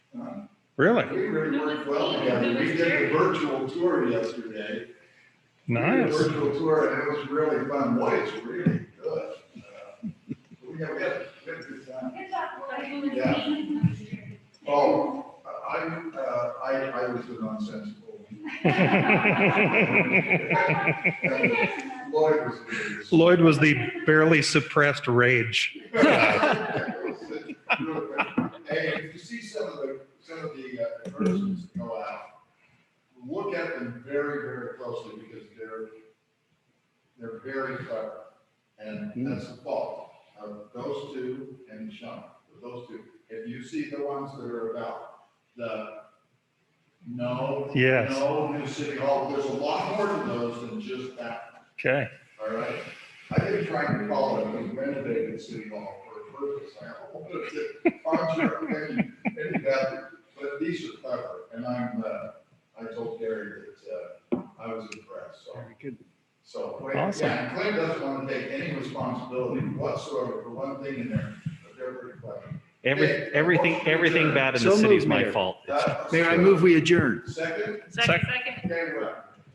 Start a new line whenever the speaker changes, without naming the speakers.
Really?
We really worked well together. We did the virtual tour yesterday.
Nice.
Virtual tour, and it was really fun. Boy, it's really good. Uh, We had, we had a good time. Oh, I, uh, I, I was a nonsensical. And Lloyd was. the-
Lloyd was the barely suppressed rage.
Hey, if you see some of the, some of the uh, persons go out, look at them very, very closely because they're, they're very clever. And that's the fault of those two and Sean, those two. If you see the ones that are about the, no.
Yes.
No, new city hall, there's a lot more to those than just that.
Okay.
All right, I've been trying to call it, we renovated City Hall for a purpose, I hope, I'm sure, maybe, maybe that, but these are clever, and I'm, uh, I told Gary that, uh, I was impressed, so. So, Clay-
Awesome.
yeah, and Clay doesn't want to take any responsibility whatsoever for one thing in there, but they're pretty clever.
Every, everything, everything bad in the
So
city is
moved,
my
Mayor.
fault.
That's-
Mayor, I move we adjourn.
Second,
Second, second.
Gary Webb,